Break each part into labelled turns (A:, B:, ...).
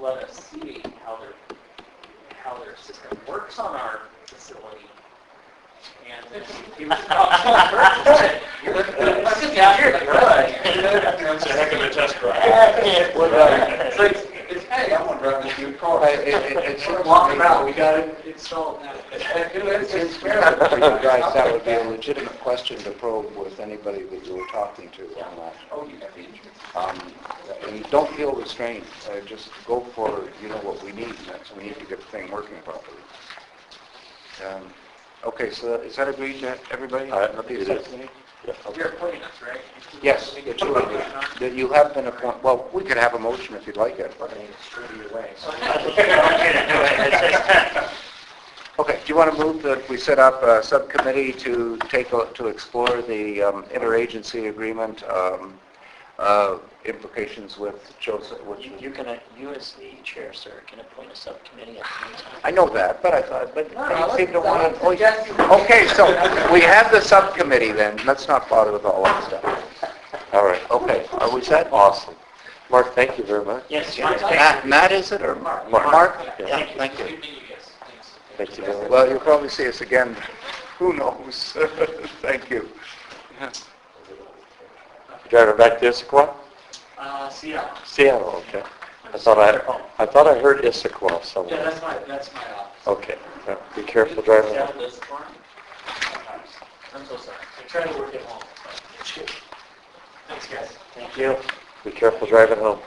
A: let us see how their, how their system works on our facility. And then he was, oh, you're fucking down here, like,
B: That's a heck of a test drive.
A: It's
C: Well,
A: like, it's, hey, I want to drive this new car.
C: It- it- it's-
A: We're walking around, we got it installed now. It's,
C: It's
A: it's
C: fair for you guys, that would be a
A: fair.
C: legitimate question to probe with anybody that you were talking to on that.
A: Oh, you have the insurance.
C: Um, And don't feel restrained, Uh, just go for, you know, what we need, and that's, we need to get the thing working properly. Um, Okay, so is that agreed to everybody?
B: Uh,
C: Not the
B: it is.
C: subcommittee? Okay.
A: You're appointing us, right?
C: Yes, the two of you, that you have been appointed, well, we could have a motion if you'd like it. Okay, do you want to move that we set up a subcommittee to take, a- to explore the um, interagency agreement um, uh, implications with Joseph, which,
D: You you can, uh, you as the chair, sir, can appoint a subcommittee at any time.
C: I know that, but I thought, but you seem to want to, oh, yeah.
A: Yes, you-
C: Okay, so we have the subcommittee then, let's not bother with all that stuff. All right, okay, are we set? Awesome. Mark, thank you very much.
D: Yes,
A: Yeah.
D: yes, thank
C: Matt, Matt, is it, or Mark? Mark? Yeah, thank you.
A: Good meeting you guys. Thanks.
C: Thank you very much. Well, you'll probably see us again, who knows? Thank you.
B: Driving back to Issaquah?
A: Uh, see ya.
B: Seattle, okay. I thought I, I thought I heard Issaquah
A: Yeah,
B: somewhere.
A: that's my, that's my office.
C: Oh,
B: Okay, yeah, be careful driving.
A: Yeah, it is. I'm so sorry. I try to work at home. Thanks, guys.
D: Thank you.
B: Be careful driving home.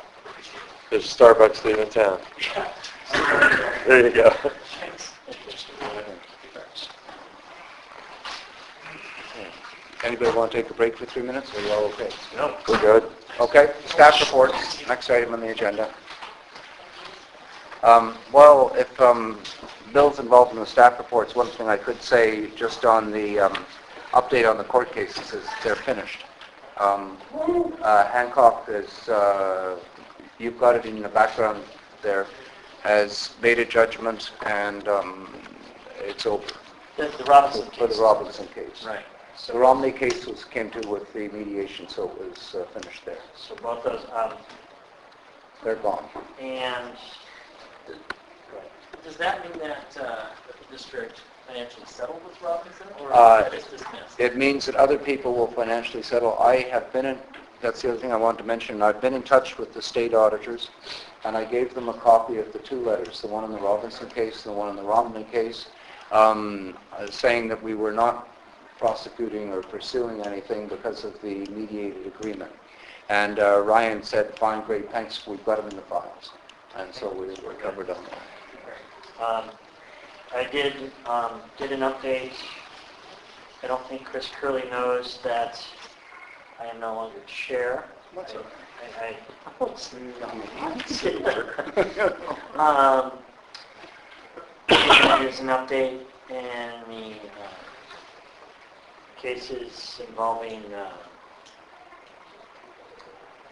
B: There's a Starbucks leaving town. There you go.
C: Anybody want to take a break for three minutes, or are you all okay?
B: No. We're good.
C: Okay, staff reports, next item on the agenda. Um, Well, if um, Bill's involved in the staff reports, one thing I could say just on the um, update on the court cases is they're finished. Um, uh, Hancock is, uh, you've got it in the background there, has made a judgment and um, it's over
D: The the Robinson
C: for the
D: case.
C: Robinson case.
D: Right.
C: The Romney case was, came to with the mediation, so it was uh, finished there.
D: So both those, um,
C: They're gone.
D: and does that mean that uh, the district financially settled with Robinson or is
C: Uh,
D: that just dismissed?
C: It means that other people will financially settle. I have been in, that's the other thing I wanted to mention, I've been in touch with the state auditors, and I gave them a copy of the two letters, the one in the Robinson case, the one in the Romney case, um, uh, saying that we were not prosecuting or pursuing anything because of the mediated agreement. And uh, Ryan said, fine, great, thanks, we've got them in the files. And so we were covered on that.
D: Um, I did, um, did an update. I don't think Chris Curley knows that I am no longer chair.
C: What's up?
D: I- I- Um, There's an update in the uh, cases involving, uh,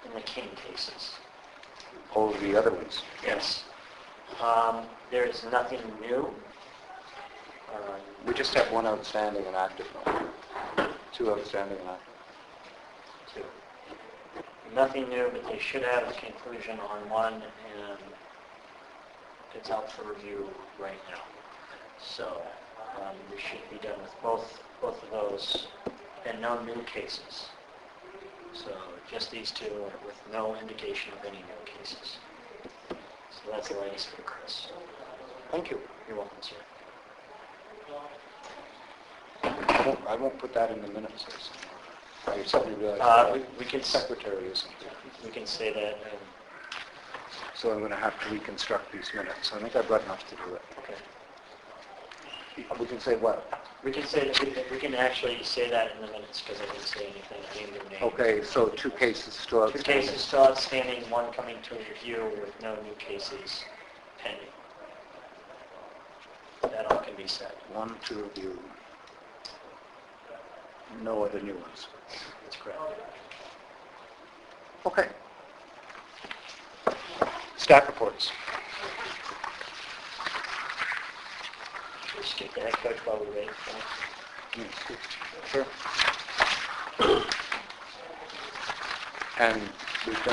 D: in the King cases.
C: All the other ones.
D: Yes. Um, There is nothing new. Uh,
C: We just have one outstanding and active one. Two outstanding and active.
D: two. Nothing new, but they should have a conclusion on one, and it's out for review right now. So um, we should be done with both, both of those, and no new cases. So just these two, with no indication of any new cases. So that's the latest for Chris.
C: Thank you.
D: You're welcome, sir.
C: I won't, I won't put that in the minutes. I suddenly realized
D: Uh,
C: that
D: we- We can,
C: the
D: s-
C: secretary isn't here.
D: we can say that, um,
C: So I'm going to have to reconstruct these minutes. I think I've got enough to do it.
D: okay.
C: We can say what?
D: We can say, that we can- we can actually say that in the minutes because I didn't say anything, I named your name.
C: Okay, so two cases still
D: Two
C: outstanding.
D: cases still outstanding, one coming to review with no new cases pending. That all can be said.
C: One to review. No other new ones.
D: That's correct.
C: Okay. Staff reports.
D: Should we skip the head coach while we wait for him?
C: Sure. And we've done